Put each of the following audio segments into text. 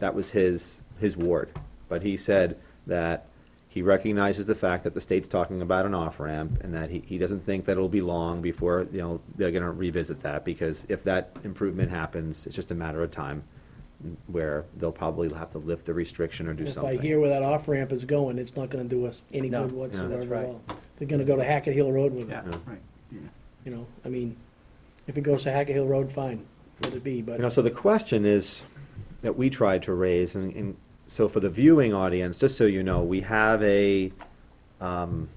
That was his, his ward. But he said that he recognizes the fact that the state's talking about an off-ramp and that he, he doesn't think that it'll be long before, you know, they're gonna revisit that because if that improvement happens, it's just a matter of time where they'll probably have to lift the restriction or do If something. I hear where that off-ramp is going, it's not gonna do us any No, good no, whatsoever at right. all. They're gonna go to Hackett Hill Road with it, Yeah. Right, yeah. you know, I mean, if it goes to Hackett Hill Road, fine, let it be, You know, but, so the question is, that we tried to raise, and, and so for the viewing audience, just so you know, we have a, um,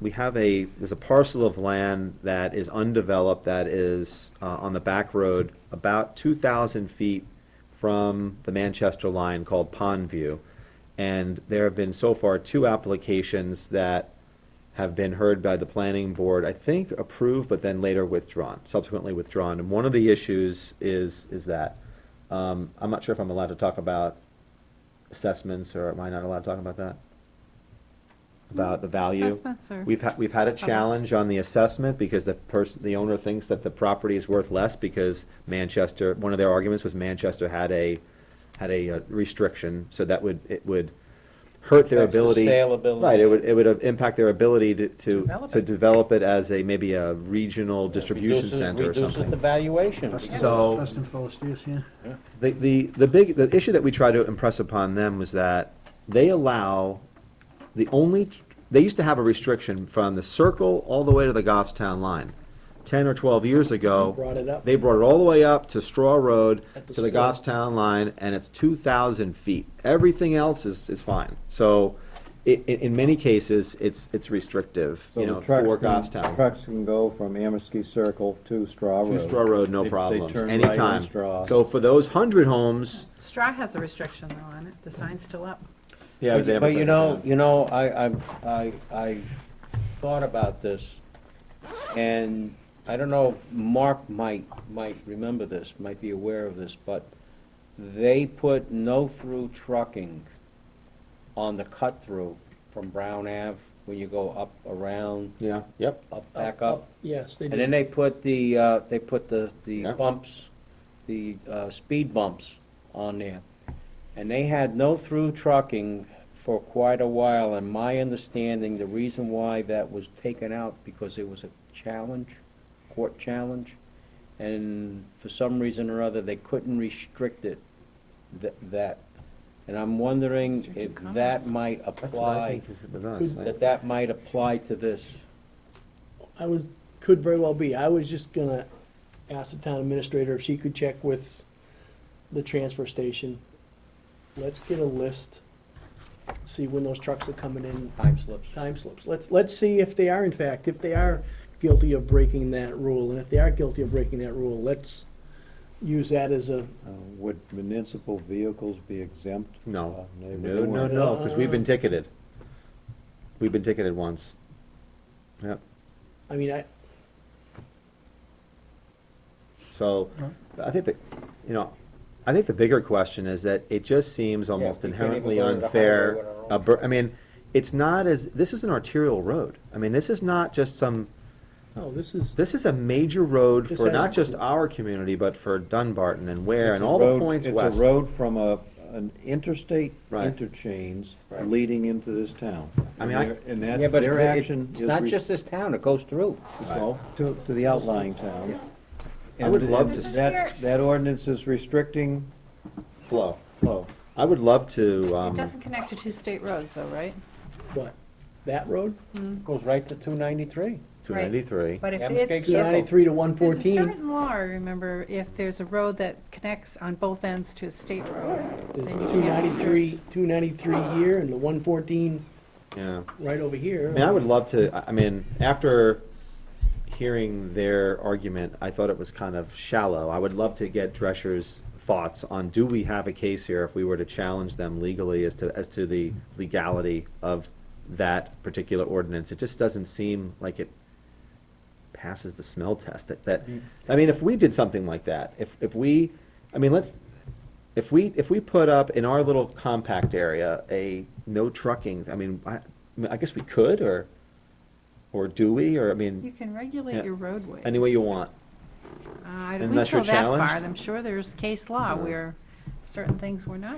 we have a, there's a parcel of land that is undeveloped, that is, uh, on the back road, about two thousand feet from the Manchester line called Pond View. And there have been so far two applications that have been heard by the planning board, I think approved, but then later withdrawn, subsequently withdrawn. And one of the issues is, is that, um, I'm not sure if I'm allowed to talk about assessments, or am I not allowed to talk about that? About the value? Assessments or- We've had, we've had a challenge on the assessment because the person, the owner thinks that the property is worth less because Manchester, one of their arguments was Manchester had a, had a uh, restriction, so that would, it would hurt their Affects the ability. saleability. Right, it would, it would impact their ability to, to, Develop to it. develop it as a, maybe a regional distribution Reduces- center or Reduces the something. valuation. Dustin- So- Dustin Philistius, yeah. The, the, the big, the issue that we tried to impress upon them was that they allow, the only, they used to have a restriction from the circle all the way to the Goffstown line. Ten or twelve years ago. Brought it up. They brought it all the way up to Straw Road, At the to the store. Goffstown line, and it's two thousand feet. Everything else is, is fine. So, i- i- in many cases, it's, it's restrictive, So you the know, trucks for can- Goffstown. Trucks can go from Amersky Circle to Straw Road. To Straw Road, They- no they problems, turn right on anytime. Straw. So for those hundred homes. Straw has a restriction though on it, the sign's still up. Yeah, But- But you know, you know, I, I, I, I thought about this, and I don't know if Mark might, might remember this, might be aware of this, but they put no-through trucking on the cut-through from Brown Ave, when you go up, around, Yeah, yep. up, back up. Oh, yes, they And then do. they put the, uh, they put the, the Yeah. bumps, the, uh, speed bumps on there. And they had no through trucking for quite a while, and my understanding, the reason why that was taken out, because it was a challenge, court challenge, and for some reason or other, they couldn't restrict it, tha- that. And I'm wondering if Restricted that commerce. might That's what I apply, think is with us. that that might apply to this. I was, could very well be, I was just gonna ask the town administrator if she could check with the transfer station. Let's get a list, see when those trucks are coming in, Time slips. time slips. Let's, let's see if they are in fact, if they are guilty of breaking that rule, and if they are guilty of breaking that rule, let's use that as a, Uh, Would municipal vehicles be exempt? Oh, No, Uh, no, they no, wouldn't no, want- no, because we've been ticketed. We've been ticketed once. Yep, I mean, I, so, I think that, you know, I think the bigger question is that it just seems almost we can't even inherently go to the unfair. highway with our own a bur- I mean, it's not as, this is an arterial road. I mean, this is not just some, no, oh, this is, this is a major road This for not has- just our community, but for Dunbarton and Ware and It's a all the road- points west. It's a road from a, an interstate Right. interchange Right. leading into this town. I mean, I- And their- And Yeah, that, but their it- action It's is. not re- just this town, it goes through. well, To, to the outlying town. I would love to s- That, that ordinance is restricting Flow. flow. I would love to, It um. doesn't connect to two state roads though, right? what, that road? Goes right to 293. Two ninety-three. But if Amherst it, Gate Two Circle. ninety-three to one there's a fourteen, certain law, I remember, if there's a road that connects on both ends to a state road, there's then you two can't ninety-three, two ninety-three here, and the one fourteen Yeah. right over here. I mean, I would love to, I- I mean, after hearing their argument, I thought it was kind of shallow. I would love to get Drescher's thoughts on, do we have a case here if we were to challenge them legally as to, as to the legality of that particular ordinance? It just doesn't seem like it passes the smell test. That, that, I mean, if we did something like that, if, if we, I mean, let's, if we, if we put up in our little compact area, a no trucking, I mean, I, I mean, I guess we could, or, or do we, or, I You mean, can Yeah. regulate your roadways. any way you want. Uh, I- Unless We you're go that far, challenged? I'm sure there's case law where certain things were not